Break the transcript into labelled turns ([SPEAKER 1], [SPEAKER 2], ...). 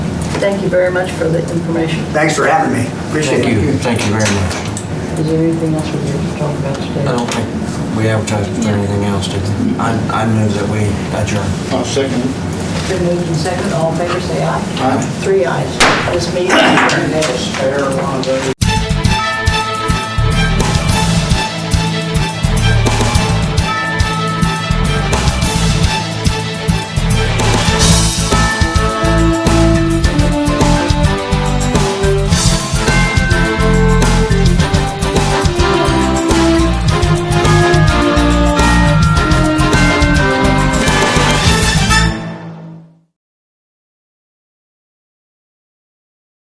[SPEAKER 1] Thank you very much for the information.
[SPEAKER 2] Thanks for having me. Appreciate
[SPEAKER 3] Thank
[SPEAKER 2] it.
[SPEAKER 3] you, thank you very much.
[SPEAKER 1] Is there anything else we need to talk about today?
[SPEAKER 3] I don't think we advertised for anything else, did we? I, I move that we adjourn.
[SPEAKER 4] I'll second it.
[SPEAKER 1] Been moved and second, all in favor, say aye.
[SPEAKER 4] Aye.
[SPEAKER 1] Three ayes. This meeting is adjourned.
[SPEAKER 4] Error on those.